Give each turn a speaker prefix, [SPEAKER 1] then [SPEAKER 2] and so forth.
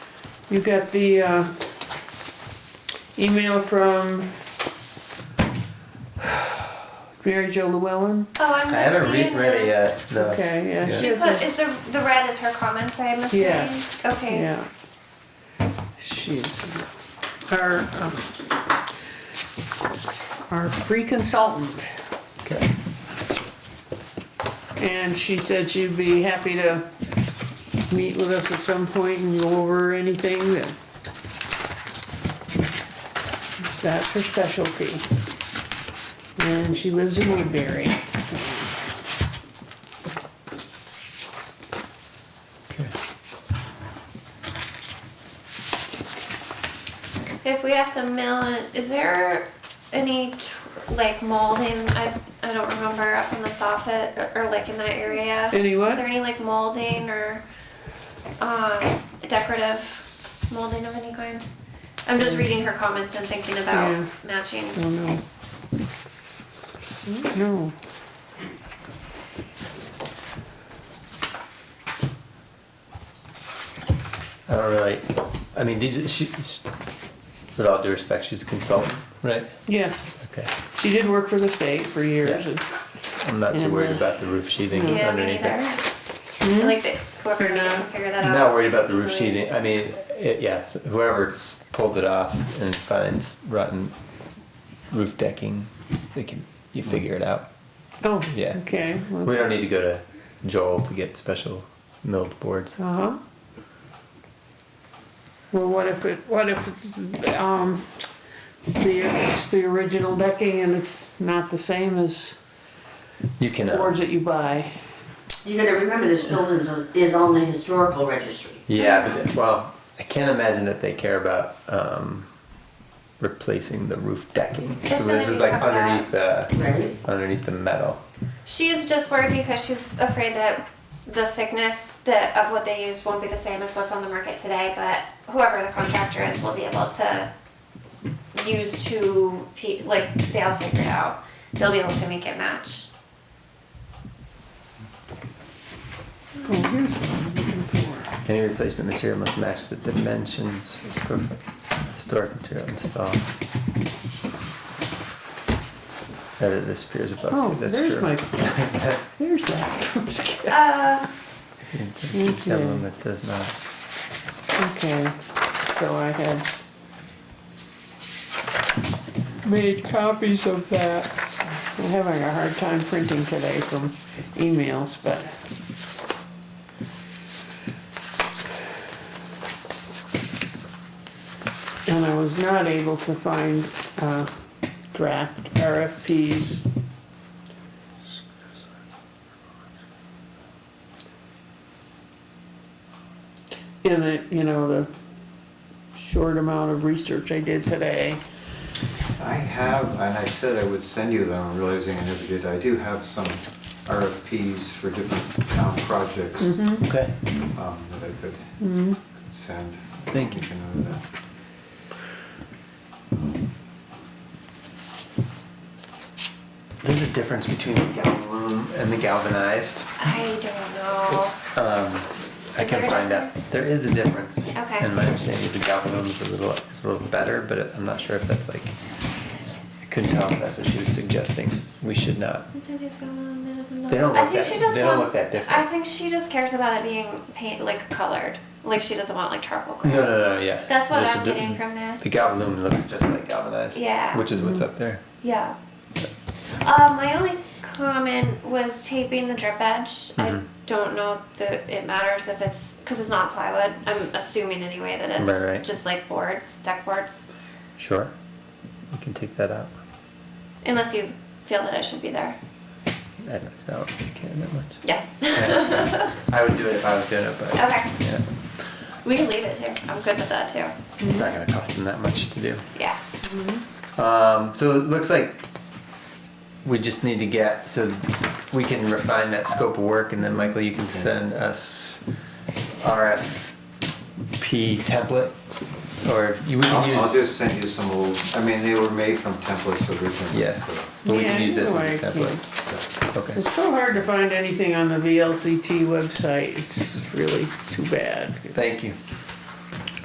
[SPEAKER 1] You got the uh, email from Mary Jo Llewellyn?
[SPEAKER 2] Oh, I'm
[SPEAKER 3] I
[SPEAKER 2] not
[SPEAKER 3] haven't
[SPEAKER 2] seeing
[SPEAKER 3] read, read it
[SPEAKER 2] this.
[SPEAKER 3] yet. though.
[SPEAKER 1] Okay, yeah.
[SPEAKER 2] She
[SPEAKER 1] has
[SPEAKER 2] put
[SPEAKER 1] a-
[SPEAKER 2] is the the red is her comments. I'm assuming.
[SPEAKER 1] Yeah.
[SPEAKER 2] Okay.
[SPEAKER 1] Yeah. She's our, um, our free consultant.
[SPEAKER 3] Okay.
[SPEAKER 1] And she said she'd be happy to meet with us at some point and go over anything that. That's her specialty. And she lives in Woodbury.
[SPEAKER 3] Okay.
[SPEAKER 2] If we have to mill it, is there any tr- like molding? I I don't remember up in the soffit or, or like in that area.
[SPEAKER 1] Any what?
[SPEAKER 2] Is there any like molding or um decorative molding of any kind? I'm just reading her comments and thinking about
[SPEAKER 1] Mm. Yeah.
[SPEAKER 2] matching.
[SPEAKER 3] Mm.
[SPEAKER 1] Oh, no. No.
[SPEAKER 3] I don't really. I mean, these. She, s- with all due respect, she's a consultant, right?
[SPEAKER 1] Yeah,
[SPEAKER 3] Okay.
[SPEAKER 1] she did work for the state for years.
[SPEAKER 3] Yeah.
[SPEAKER 1] and-
[SPEAKER 3] I'm not too
[SPEAKER 1] And,
[SPEAKER 3] worried
[SPEAKER 1] uh,
[SPEAKER 3] about the roof sheathing
[SPEAKER 2] Yeah, me
[SPEAKER 3] underneath
[SPEAKER 2] neither. Um,
[SPEAKER 3] it.
[SPEAKER 1] Hmm?
[SPEAKER 2] I like that whoever
[SPEAKER 1] Fair
[SPEAKER 2] can
[SPEAKER 1] enough.
[SPEAKER 2] figure that
[SPEAKER 3] I'm
[SPEAKER 2] out.
[SPEAKER 3] not worried about the roof
[SPEAKER 2] easily.
[SPEAKER 3] sheathing. I mean, it, yes, whoever pulls it off and finds rotten roof decking, they can you figure it out.
[SPEAKER 1] Oh,
[SPEAKER 3] Yeah.
[SPEAKER 1] okay. well,
[SPEAKER 3] We don't need to go to Joel to get special milled boards.
[SPEAKER 1] Uh-huh. Well, what if it, what if, it's, um, the, it's the original decking and it's not the same as
[SPEAKER 3] You can. uh,
[SPEAKER 1] boards that you buy?
[SPEAKER 4] You gotta remember this building is, is on the historical registry.
[SPEAKER 3] Yeah, but well, I can't imagine that they care about um, replacing the roof decking.
[SPEAKER 2] It's
[SPEAKER 3] So
[SPEAKER 2] gonna
[SPEAKER 3] this is
[SPEAKER 2] be
[SPEAKER 3] like
[SPEAKER 2] covered up.
[SPEAKER 3] underneath the
[SPEAKER 4] Ready?
[SPEAKER 3] underneath the metal.
[SPEAKER 2] She's just worried because she's afraid that the thickness that of what they use won't be the same as what's on the market today, but whoever the contractor is will be able to use two pe- like they'll figure it out. They'll be able to make it match.
[SPEAKER 1] Oh, here's what I'm looking for.
[SPEAKER 3] Any replacement material must match the dimensions of historic material installed. Edit this appears above
[SPEAKER 1] Oh,
[SPEAKER 3] too. That's
[SPEAKER 1] there's
[SPEAKER 3] true.
[SPEAKER 1] my- Here's that.
[SPEAKER 2] Uh,
[SPEAKER 3] The intent of the
[SPEAKER 1] Okay.
[SPEAKER 3] emblem that does not.
[SPEAKER 1] Okay, so I had made copies of that. I'm having a hard time printing today from emails, but. And I was not able to find, uh, draft RFPs. in the, you know, the short amount of research I did today.
[SPEAKER 5] I have, and I said I would send you them, I'm realizing I never did, I do have some RFPs for different town projects um,
[SPEAKER 3] Okay.
[SPEAKER 5] that I could send.
[SPEAKER 3] Thank you.
[SPEAKER 5] can uh, know that.
[SPEAKER 3] There's a difference between the galvanum and the galvanized.
[SPEAKER 2] I don't know.
[SPEAKER 3] Um, I
[SPEAKER 2] Is
[SPEAKER 3] can
[SPEAKER 2] there a
[SPEAKER 3] find out.
[SPEAKER 2] difference?
[SPEAKER 3] There is a difference.
[SPEAKER 2] Okay.
[SPEAKER 3] And my understanding is the galvanum is a little, is a little better, but I'm not sure if that's like, I couldn't tell if that's what she was suggesting. We should not. They don't
[SPEAKER 2] I think
[SPEAKER 3] look that-
[SPEAKER 2] she just
[SPEAKER 3] they don't look
[SPEAKER 2] wants-
[SPEAKER 3] that different.
[SPEAKER 2] I think she just cares about it being paint like colored. Like she doesn't want like charcoal
[SPEAKER 3] No,
[SPEAKER 2] color.
[SPEAKER 3] no, no, yeah.
[SPEAKER 2] That's what
[SPEAKER 3] This
[SPEAKER 2] I'm
[SPEAKER 3] is di-
[SPEAKER 2] getting from this.
[SPEAKER 3] The galvanum looks just like galvanized.
[SPEAKER 2] Yeah.
[SPEAKER 3] Which is what's up there.
[SPEAKER 2] Yeah. Uh, my only comment was taping the drip edge. I
[SPEAKER 3] Mhm.
[SPEAKER 2] don't know that it matters if it's because it's not plywood. I'm assuming anyway that it's
[SPEAKER 3] Right, right.
[SPEAKER 2] just like boards, deck boards,
[SPEAKER 3] Mm-hmm. Sure. You can take that out.
[SPEAKER 2] unless you feel that it should be there.
[SPEAKER 3] I don't, I don't really care that much.
[SPEAKER 2] Yeah.
[SPEAKER 3] Yeah. I would do it if I was doing it, but.
[SPEAKER 2] Okay.
[SPEAKER 3] Yeah.
[SPEAKER 2] we can leave it too. I'm good with that too.
[SPEAKER 3] It's not gonna cost them that much to do.
[SPEAKER 2] Yeah.
[SPEAKER 3] Um, so it looks like we just need to get, so we can refine that scope of work and then Michael, you can send us RFP template? Or you we
[SPEAKER 5] I'll
[SPEAKER 3] can
[SPEAKER 5] I'll
[SPEAKER 3] use,
[SPEAKER 5] just send you some old, I mean, they were made from templates originally.
[SPEAKER 3] yeah,
[SPEAKER 5] so-
[SPEAKER 3] but we can
[SPEAKER 1] Yeah,
[SPEAKER 3] use this
[SPEAKER 1] either
[SPEAKER 3] as a
[SPEAKER 1] way, yeah.
[SPEAKER 3] template. Okay,
[SPEAKER 1] It's so hard to find anything on the VLCT website, it's really too bad.
[SPEAKER 3] thank you.